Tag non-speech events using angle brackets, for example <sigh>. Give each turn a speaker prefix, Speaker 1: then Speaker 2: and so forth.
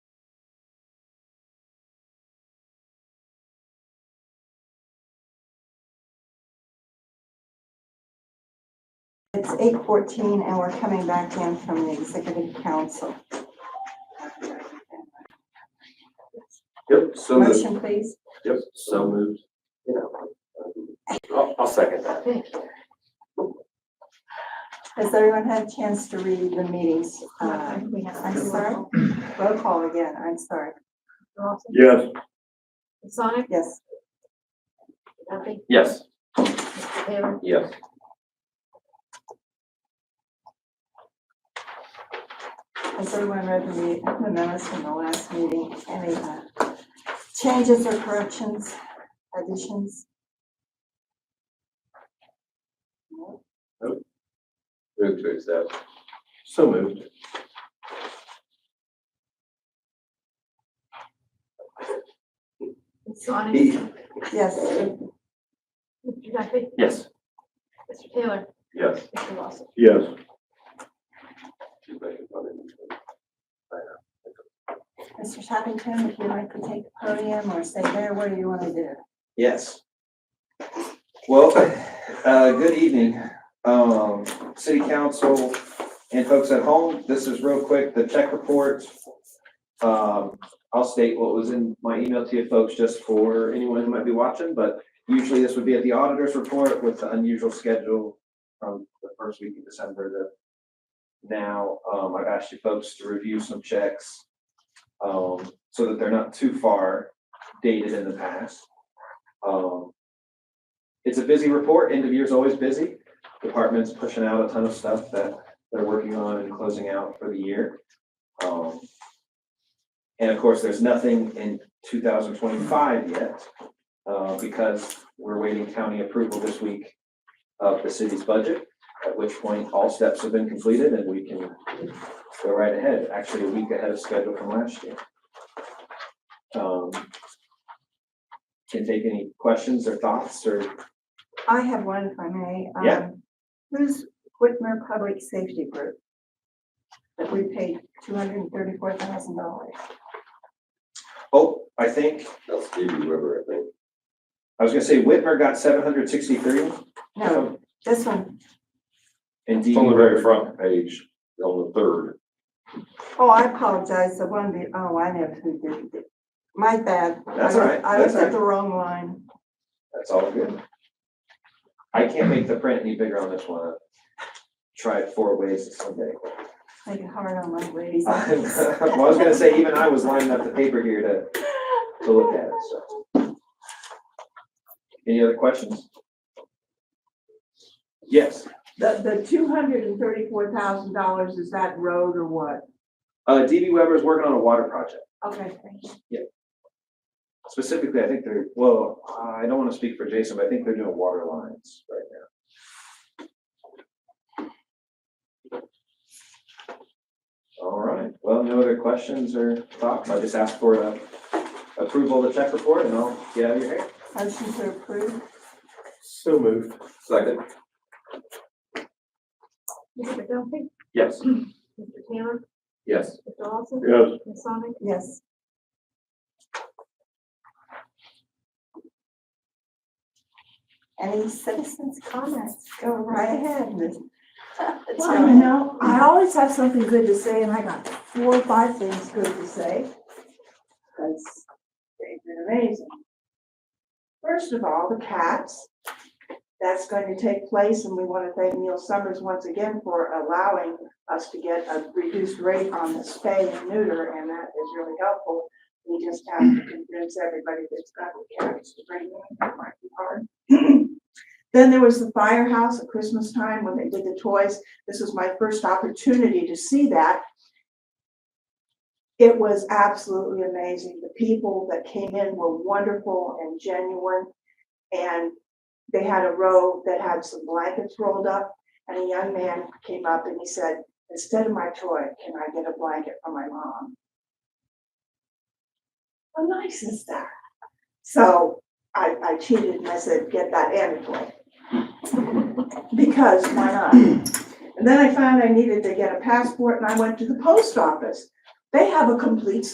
Speaker 1: It's eight fourteen and we're coming back in from the executive council.
Speaker 2: Yep, so moved.
Speaker 1: Motion, please.
Speaker 2: Yep, so moved. You know, I'll, I'll second that.
Speaker 1: Has everyone had a chance to read the meetings? uh,
Speaker 3: We have
Speaker 1: I'm
Speaker 3: to do
Speaker 1: sorry?
Speaker 3: roll call.
Speaker 1: Roll call again, I'm sorry.
Speaker 3: Lawson?
Speaker 2: Yes.
Speaker 3: Sonic?
Speaker 1: Yes,
Speaker 3: Duffy?
Speaker 2: Yes.
Speaker 3: Taylor?
Speaker 2: Yes.
Speaker 1: has everyone read the me- the minutes from the last meeting? Any uh, changes or corrections, additions?
Speaker 2: Move to accept. So moved.
Speaker 3: Sonic?
Speaker 1: Yes,
Speaker 3: Mr. Duffy?
Speaker 2: Yes.
Speaker 3: Mr. Taylor?
Speaker 2: Yes.
Speaker 3: Mr. Lawson?
Speaker 2: Yes.
Speaker 1: Mr. Shoppington, if you'd like to take the podium or stay there, what do you want to do?
Speaker 4: Yes. Well, uh, good evening, um, city council and folks at home. This is real quick, the check report. Um, I'll state what was in my email to you folks just for anyone who might be watching, but usually this would be at the auditor's report with the unusual schedule from the first week of December to now. Um, I've asked you folks to review some checks um, so that they're not too far dated in the past. Um, It's a busy report, end of year is always busy. Department's pushing out a ton of stuff that they're working on and closing out for the year. Um, And of course, there's nothing in two thousand twenty-five yet, uh, because we're waiting county approval this week of the city's budget, at which point all steps have been completed and we can go right ahead, actually a week ahead of schedule from last year. Um, can take any questions or thoughts or
Speaker 1: I have one, if I may. Um,
Speaker 4: Yeah.
Speaker 1: Who's Whitmer Public Safety Group? That we paid two hundred and thirty-four thousand dollars.
Speaker 4: Oh, I think,
Speaker 2: That's Stevie Weber, I think.
Speaker 4: I was gonna say Whitmer got seven hundred sixty-three. Oh.
Speaker 1: No, this one.
Speaker 4: And
Speaker 2: It's
Speaker 4: DD
Speaker 2: on the very
Speaker 4: Weber,
Speaker 2: front page, on the third.
Speaker 1: Oh, I apologize, the one, be- oh, I know who did it. My bad.
Speaker 4: That's all right,
Speaker 1: I was
Speaker 4: that's all
Speaker 1: at the wrong line.
Speaker 4: that's all good. I can't make the print any bigger on this one. I've Tried four ways someday. <laughs>
Speaker 1: Make it hard on my ladies.
Speaker 4: Well, <laughs> I was gonna say, even I was lining up the paper here to, to look at it, so. Any other questions? Yes,
Speaker 5: The, the two hundred and thirty-four thousand dollars, is that road or what?
Speaker 4: uh, DB Weber is working on a water project.
Speaker 5: Okay,
Speaker 4: Specifically, I think they're, well, I don't wanna speak for Jason, but I think they're doing water lines right now. All right, well, no other questions or thoughts, I just ask for uh, approval of the check report and I'll get out of your hair.
Speaker 1: Motion to approve.
Speaker 2: So moved. Second.
Speaker 3: Mr. Duffy?
Speaker 2: Yes.
Speaker 3: Mr. Taylor?
Speaker 2: Yes.
Speaker 3: Mr. Lawson?
Speaker 2: Yes.
Speaker 3: Ms. Sonic?
Speaker 1: Yes. Any citizens' comments? Go right ahead, <laughs> Ms.
Speaker 5: well, you know, I always have something good to say, and I got four or five things good to say. Because they've been amazing. First of all, the cats. That's going to take place, and we want to thank Neil Summers once again for allowing us to get a reduced rate on the spay and neuter, and that is really helpful. We just have to convince everybody that's got the cats to bring them, that might be hard. <clears throat> Then there was the firehouse at Christmas time when they did the toys. This was my first opportunity to see that. It was absolutely amazing. The people that came in were wonderful and genuine. And they had a row that had some blankets rolled up. And a young man came up and he said, instead of my toy, can I get a blanket for my mom? How nice is that? So I, I cheated and I said, get that and a toy. Because why not? And then I found I needed to get a passport and I went to the post office. They have a complete